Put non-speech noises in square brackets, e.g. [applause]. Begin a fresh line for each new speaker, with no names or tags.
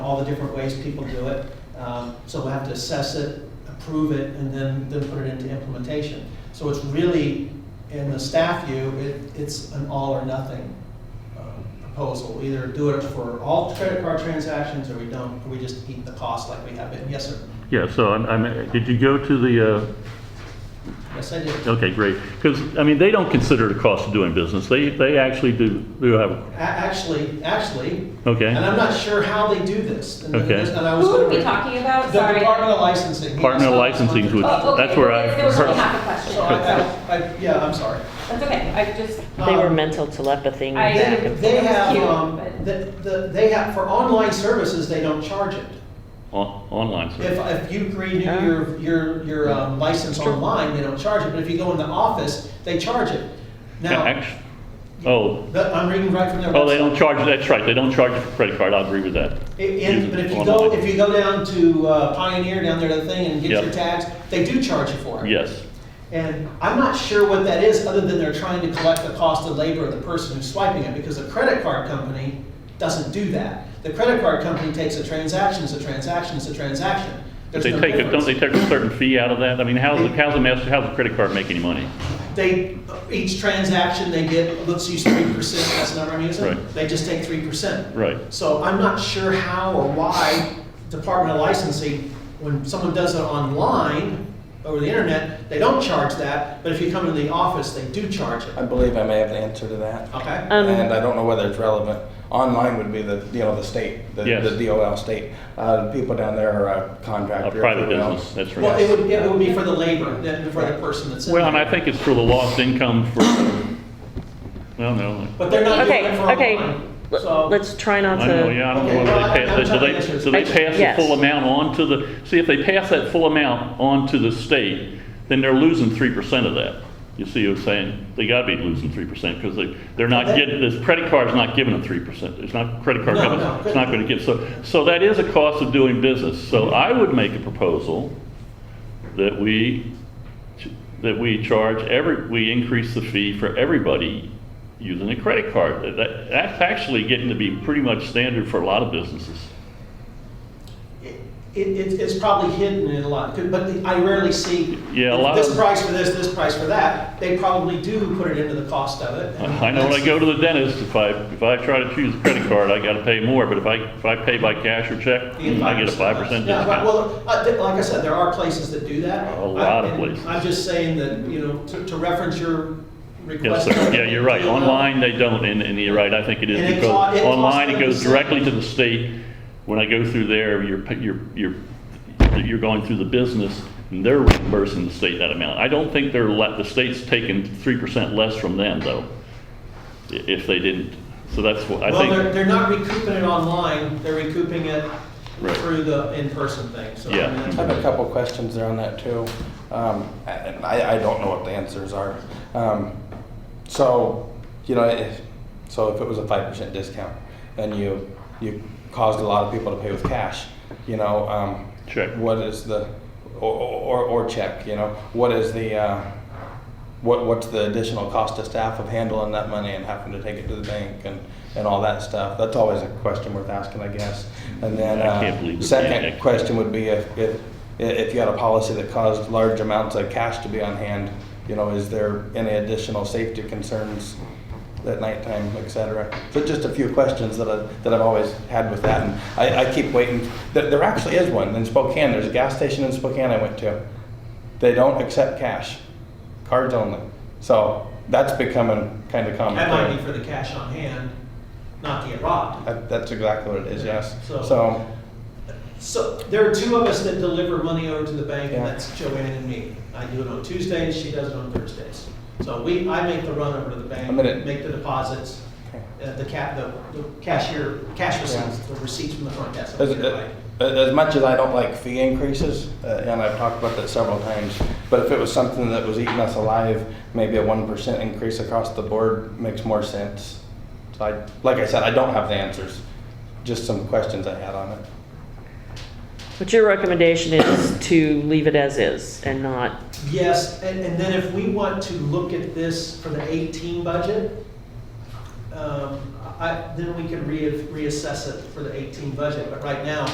all the different ways people do it. Um, So we'll have to assess it, approve it, and then, then put it into implementation. So it's really, in the staff view, it, it's an all or nothing uh, proposal. We Either do it for all credit card transactions, or we don't, or we just eat the cost like we have been. Yes, sir.
Yeah, so I'm, I'm, did you go to the, uh,
Yes, I did.
okay, great. Because, I mean, they don't consider the cost of doing business. They, they actually do, do have, a-
A- Actually, actually, and
okay,
I'm not sure how they do this. And
Okay.
and I was
Who are we
gonna-
talking about?
The
Sorry.
Department of Licensing.
Partner licensing is what-
Oh, okay.
That's where I
There was only
heard.
half a
So I,
question.
[laughs] I, I- yeah, I'm sorry.
That's okay. I just,
They were
Um,
mental telepathy.
I-
back
They,
and
they
It's
have,
cute,
um,
but-
the, the, they have, for online services, they don't charge it.
on- online,
If,
so,
if you renew your, your, your um, license online, they don't charge it, but if you go in the office, they charge it. Now,
Act- oh,
that- I'm reading right from their
oh, they
website.
don't charge, that's right, they don't charge you for credit card, I agree with that.
I- and- but if you go,
Online.
if you go down to uh, Pioneer, down there to the thing and get
Yep.
your tags, they do charge you for it.
Yes,
And I'm not sure what that is, other than they're trying to collect the cost of labor of the person who's swiping it, because a credit card company doesn't do that. The credit card company takes a transaction, it's a transaction, it's a transaction. There's
they
no
take, a-
difference.
don't they take a certain fee out of that? I mean, how's, the-
They-
how's the master, how's the credit card make any money?
They, each transaction they get, let's use three percent, that's the number I'm using.
Right.
They just take three percent.
Right.
So I'm not sure how or why Department of Licensing, when someone does it online, over the internet, they don't charge that, but if you come into the office, they do charge it,
I believe I may have an answer to that.
okay?
Um,
and I don't know whether it's relevant. Online would be the, you know, the state, the,
Yes.
the DOL state. Uh, the people down there are a contractor.
A
if you
private
will.
business, that's
Well,
right.
it would, it would be for the labor, then for the person that's in there.
Well, and I think it's for the lost income for, well, no,
But they're not doing it
Okay,
for
okay,
online, so.
Let- let's try not
I know,
to,
yeah, I don't know
Okay,
whether
well, I-
they
I'm
pass,
trying to
do
answer
they,
this
do they
question.
pass the full
Yes.
amount on to the, see, if they pass that full amount on to the state, then they're losing three percent of that. You see what I'm saying? They gotta be losing three percent, because they, they're not
That-
getting, this credit card's not giving them three percent. It's not, credit card
No,
company,
no.
it's not gonna give, so, so that is a cost of doing business. So I would make a proposal that we, ch- that we charge every, we increase the fee for everybody using a credit card. That- That, that's actually getting to be pretty much standard for a lot of businesses.
It, it, it's probably hidden in a lot, but the- I rarely see.
Yeah, a lot
This
of-
price for this, this price for that, they probably do put it into the cost of it. and
I I know when I
that's-
go to the dentist, if I, if I try to choose a credit card, I gotta pay more, but if I, if I pay by cash or check, I get a five percent
Yeah, but-
discount.
Well, uh, th- like I said, there are places that do that.
A lot of
I- and
places.
I'm just saying that, you know, to, to reference your request.
Yes, sir, yeah,
[laughs]
you're right, online they don't, and, and you're right, I think it
And it
is,
co- it costs
because online it
30%.
goes directly to the state. When I go through there, you're, pa- you're, you're, you're going through the business, and they're reimbursing the state that amount. I don't think they're, let- the state's taking three percent less from them, though, i- if they didn't, so that's what, I
Well,
think.
they're, they're not recouping it online, they're recouping it
Right.
through the in-person thing, so. I
Yeah.
mean, that's-
I have a couple questions there on that too. Um, and I, I don't know what the answers are. Um, so, you know, if, so if it was a five percent discount and you, you caused a lot of people to pay with cash, you know, um.
Check.
What is the, or, or, or check, you know, what is the, uh, what, what's the additional cost to staff of handling that money and having to take it to the bank and, and all that stuff? That's always a question worth asking, I guess. And then,
I can't believe
uh,
we're paying
second
that.
question would be if, if, if you had a policy that caused large amounts of cash to be on hand, you know, is there any additional safety concerns at nighttime, et cetera? So just a few questions that I, that I've always had with that, and I, I keep waiting. There, there actually is one in Spokane, there's a gas station in Spokane I went to. They don't accept cash, cards only. So that's becoming kind of common.
That might be for the cash on hand, not to get robbed.
That- That's exactly what it is, yes.
So-
So,
So there are two of us that deliver money over to the bank, and
Yeah.
that's Joanne and me. I do it on Tuesdays, she does it on Thursdays. So we, I make the run over to the
I'm gonna-
bank, make the deposits, uh, the cap, the the cashier, cash receipts, the receipts from the front desk.
As, uh,
Right.
as much as I don't like fee increases, uh, and I've talked about that several times, but if it was something that was eating us alive, maybe a one percent increase across the board makes more sense. So I, like I said, I don't have the answers, just some questions I had on it.
but your recommendation is to leave it as is and not,
Yes, and, and then if we want to look at this for the 18 budget, um, I, then we can re- reassess it for the 18 budget, but right now,